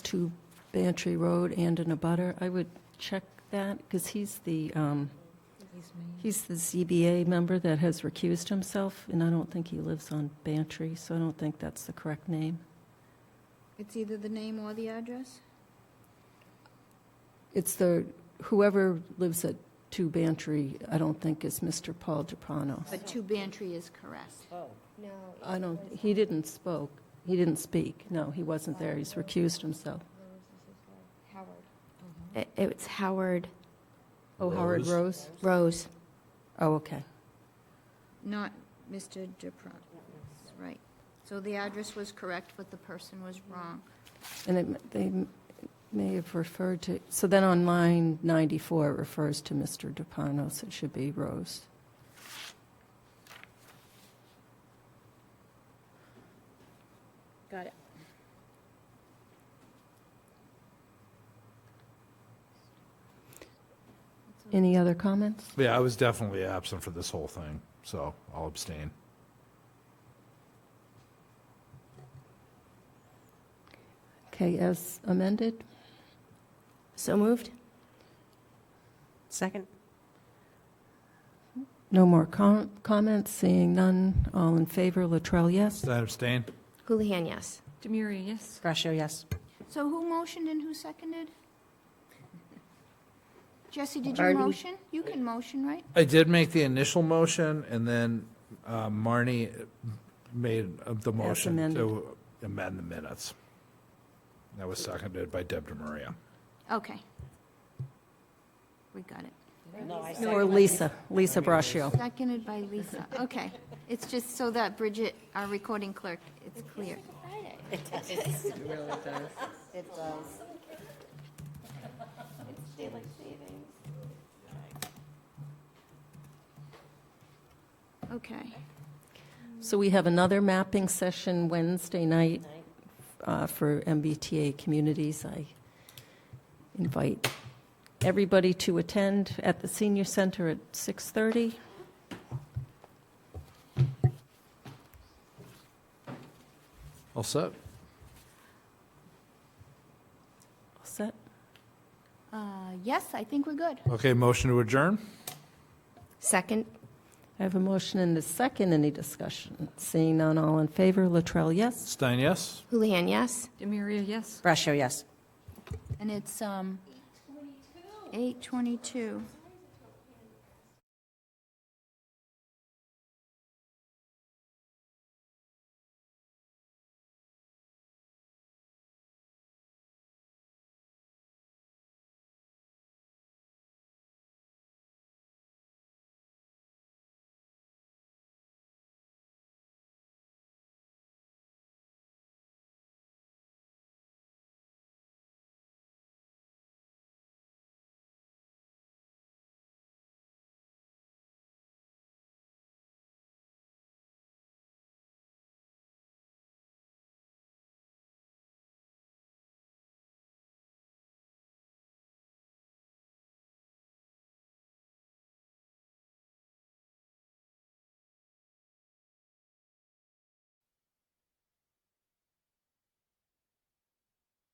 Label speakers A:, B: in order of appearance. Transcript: A: to Bantry Road and in a butter. I would check that, because he's the, um, he's the ZBA member that has recused himself, and I don't think he lives on Bantry, so I don't think that's the correct name.
B: It's either the name or the address?
A: It's the, whoever lives at 2 Bantry, I don't think is Mr. Paul DiPrano.
B: But Two Bantry is correct.
A: I don't,
C: um,
A: he didn't spoke, he didn't speak. No, he wasn't there, he's recused himself.
C: It- It's Howard
A: Oh, Howard Rose?
C: Rose.
A: Oh, okay.
B: Not Mr. DePron. Right. So the address was correct, but the person was wrong.
A: And it, m- they m- may have referred to, so then on line 94, it refers to Mr. DeParnos, so it should be Rose.
B: Got it.
A: Any other comments?
D: Yeah, I was definitely absent for this whole thing, so I'll abstain.
A: Okay, as amended,
C: So moved?
E: Second?
A: no more com- comments, seeing none, all in favor, Latrell, yes?
D: Does that abstain?
C: Houlihan, yes.
F: Demuria, yes.
E: Brascio, yes.
B: So who motioned and who seconded? Jesse, did you
A: Artie.
B: motion? You can motion, right?
D: I did make the initial motion, and then uh, Marnie made uh, the motion
A: amended.
D: to amend the minutes. That was seconded by Deb DeMaria.
B: Okay. We got it.
A: Or Lisa, Lisa Braccio.
B: Seconded by Lisa. Okay. It's just so that Bridget, our recording clerk, it's clear. Okay.
A: So we have another mapping session Wednesday night uh, for MBTA communities. I invite everybody to attend at the senior center at 6:30.
D: All set?
A: All set?
B: Uh, Yes, I think we're good.
D: Okay, motion to adjourn?
C: Second?
A: I have a motion and a second. Any discussion? Seeing none, all in favor, Latrell, yes?
D: Stein, yes?
C: Houlihan, yes.
F: Demuria, yes.
E: Brascio, yes.
B: And it's um, 8:22.